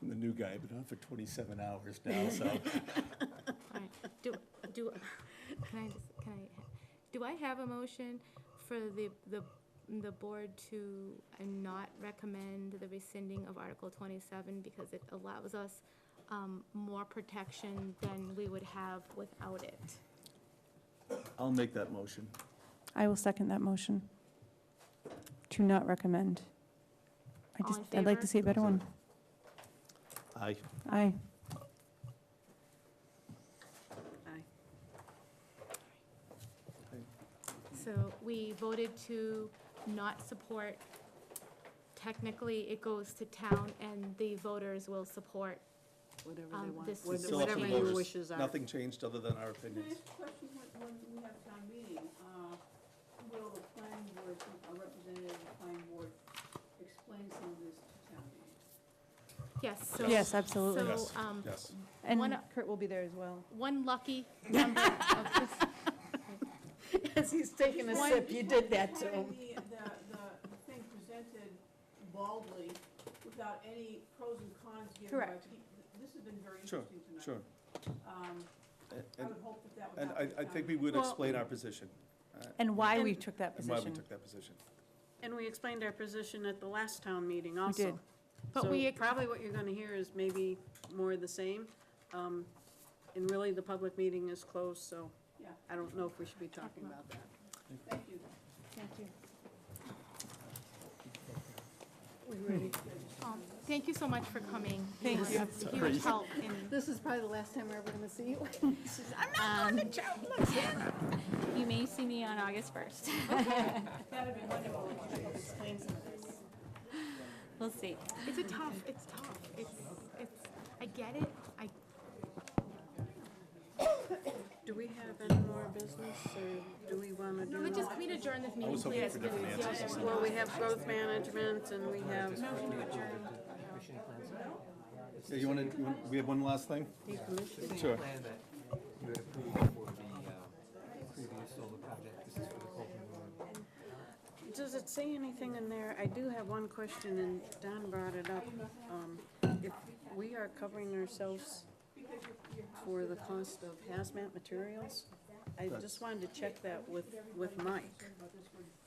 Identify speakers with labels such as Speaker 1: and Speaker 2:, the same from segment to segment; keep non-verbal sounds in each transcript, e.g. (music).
Speaker 1: new guy, been on for twenty-seven hours now, so.
Speaker 2: All right, do, do, can I, just- can I, do I have a motion for the, the, the board to uh, not recommend the rescinding of Article twenty-seven because it allows us, um, more protection than we would have without it?
Speaker 1: I'll make that motion.
Speaker 3: I will second that motion. To not recommend. I
Speaker 2: All
Speaker 3: just,
Speaker 2: in
Speaker 3: I'd like
Speaker 2: favor?
Speaker 3: to see a better one.
Speaker 1: Aye.
Speaker 3: Aye.
Speaker 2: So we voted to not support, technically, it goes to town and the voters will support.
Speaker 4: Whatever
Speaker 2: Um,
Speaker 4: they want,
Speaker 2: this
Speaker 4: what-
Speaker 2: is
Speaker 1: Still up to
Speaker 4: whatever
Speaker 1: the
Speaker 4: your
Speaker 1: voters.
Speaker 4: wishes are.
Speaker 1: Nothing changed other than our
Speaker 5: Can I
Speaker 1: opinions.
Speaker 5: ask a question when, when we have town meeting? Uh, will the planning board, a representative of the planning board explain some of this to town meeting?
Speaker 2: Yes, so.
Speaker 3: Yes, absolutely.
Speaker 2: So,
Speaker 1: Yes.
Speaker 2: um,
Speaker 1: Yes.
Speaker 3: And
Speaker 2: one-
Speaker 3: Kurt will be there as
Speaker 4: (laughs)
Speaker 3: well.
Speaker 2: one
Speaker 3: (laughs)
Speaker 2: lucky number of this
Speaker 4: As he's taking a
Speaker 5: Just
Speaker 4: sip,
Speaker 5: wanted-
Speaker 4: you did that
Speaker 5: just
Speaker 4: to him.
Speaker 5: wanted The, the, the thing presented baldly without any pros and cons given by
Speaker 2: Correct.
Speaker 5: people. This has been very
Speaker 1: Sure,
Speaker 5: interesting tonight.
Speaker 1: Sure.
Speaker 5: Um,
Speaker 1: And-
Speaker 5: I
Speaker 1: And,
Speaker 5: would hope that that would
Speaker 1: and
Speaker 5: happen.
Speaker 1: I,
Speaker 5: at
Speaker 1: I
Speaker 5: town
Speaker 1: think we
Speaker 5: meeting.
Speaker 1: would
Speaker 4: Well-
Speaker 1: explain our position
Speaker 3: And why we
Speaker 4: And-
Speaker 3: took that
Speaker 1: and why we
Speaker 3: position.
Speaker 1: took that position.
Speaker 4: And we explained our position at the last town meeting also.
Speaker 3: did.
Speaker 2: But
Speaker 4: So
Speaker 2: we ex-
Speaker 4: Probably what you're gonna hear is maybe more of the same. Um, And really, the public meeting is closed, so
Speaker 5: Yeah,
Speaker 4: I don't know if we should be talking about that.
Speaker 5: thank you.
Speaker 3: Thank you.
Speaker 4: We ready?
Speaker 2: Um, Thank you so much for coming.
Speaker 3: Thank
Speaker 2: was
Speaker 3: you.
Speaker 2: a Huge help in,
Speaker 4: This is probably the last time we're ever gonna see you.
Speaker 6: Um, You may see me on August (laughs)
Speaker 7: (laughs)
Speaker 6: 1st.
Speaker 5: That'd be wonderful if you could explain some of this.
Speaker 6: We'll see.
Speaker 2: it's a tough, it's tough. It's, it's, I get it. I,
Speaker 4: Do we have any more business, or do we wanna do?
Speaker 2: but just, can we adjourn this meeting?
Speaker 1: was hoping
Speaker 2: please?
Speaker 1: for different
Speaker 2: Yeah,
Speaker 1: answers.
Speaker 2: yeah, yeah.
Speaker 4: Well, we have growth management, and we have,
Speaker 1: Yeah, you wanna, you want we have one last thing? Sure.
Speaker 8: plan that you had approved for the uh, previous solar project, this is for the Colton Road.
Speaker 4: does it say anything in there? I do have one question, and Don brought it up. Um, If we are covering ourselves for the cost of hazmat materials, I just wanted to check that with, with Mike.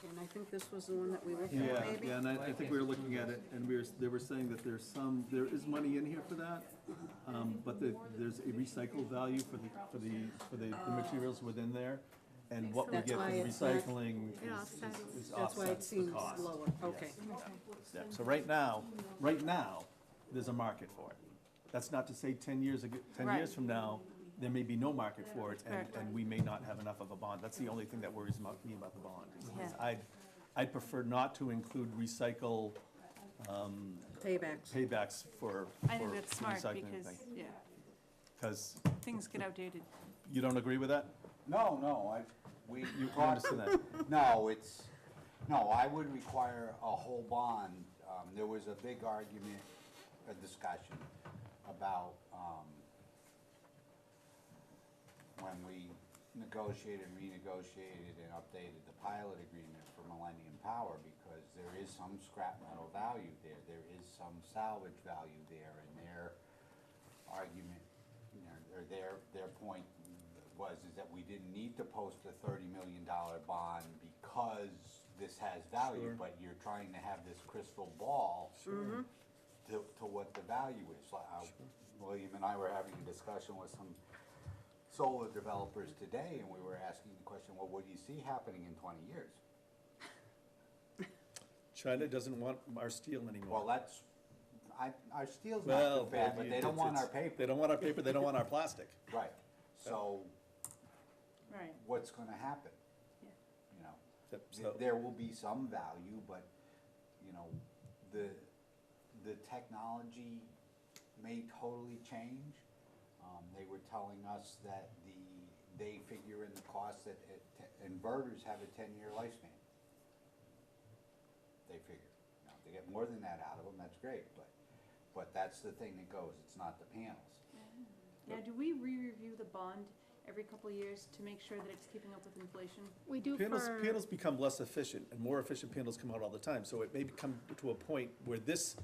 Speaker 4: And I think this was the one that we looked
Speaker 1: Yeah,
Speaker 4: at, maybe?
Speaker 1: yeah, and I, I think we were looking at it, and we were, they were saying that there's some, there is money in here for that, um, but the, there's a recycle value for the, for the, for the, the materials within there, and what we
Speaker 4: That's
Speaker 1: get for
Speaker 4: why
Speaker 1: the
Speaker 4: it's not-
Speaker 1: recycling
Speaker 2: It
Speaker 1: is-
Speaker 2: offsets.
Speaker 1: is, is
Speaker 4: That's why it
Speaker 1: offsets the
Speaker 4: seems
Speaker 1: cost.
Speaker 4: lower, okay.
Speaker 1: Yeah, So right now, right now, there's a market for it. That's not to say ten years ago, ten
Speaker 4: Right.
Speaker 1: years from now, there may be no market for it, and, and we may not have enough of a bond. That's the only thing that worries about me about the bond. is- is
Speaker 4: Yeah.
Speaker 1: I'd, I'd prefer not to include recycle, um,
Speaker 4: Paybacks.
Speaker 1: paybacks for,
Speaker 3: I
Speaker 1: for
Speaker 3: think that's smart
Speaker 1: recycling
Speaker 3: because,
Speaker 1: thing.
Speaker 3: yeah,
Speaker 1: Because
Speaker 3: things get outdated.
Speaker 1: you don't agree with that?
Speaker 9: No, no, I, we
Speaker 1: You you
Speaker 9: talked,
Speaker 1: understand that?
Speaker 9: no, it's, no, I would require a whole bond. Um, there was a big argument, a discussion about, um, when we negotiated, renegotiated, and updated the pilot agreement for Millennium Power, because there is some scrap metal value there, there is some salvage value there, and there, argument, you know, or their, their point was, is that we didn't need to post a thirty million dollar bond because this has value, but you're trying to have this crystal ball to, to what the value is. Like, I- William and I were having a discussion with some solar developers today, and we were asking the question, well, what do you see happening in twenty years?
Speaker 1: China doesn't want our steel
Speaker 9: Well,
Speaker 1: anymore.
Speaker 9: that's, I, our steel's not too bad, but they don't want our
Speaker 1: it's-
Speaker 9: paper.
Speaker 1: They don't want our paper, they don't want our plastic.
Speaker 9: Right, so
Speaker 4: Right.
Speaker 9: what's gonna happen? You know,
Speaker 1: Yep,
Speaker 9: th-
Speaker 1: so-
Speaker 9: there will be some value, but, you know, the, the technology may totally change. Um, they were telling us that the, they figure in the cost that it- te- inverters have a ten-year lifespan. They figure, now, if they get more than that out of them, that's great, but, but that's the thing that goes, it's not the panels.
Speaker 7: Now, do we re-review the bond every couple of years to make sure that it's keeping up with inflation?
Speaker 2: We do
Speaker 1: Panels,
Speaker 2: for,
Speaker 1: panels become less efficient, and more efficient panels come out all the time, so it may come to a point where this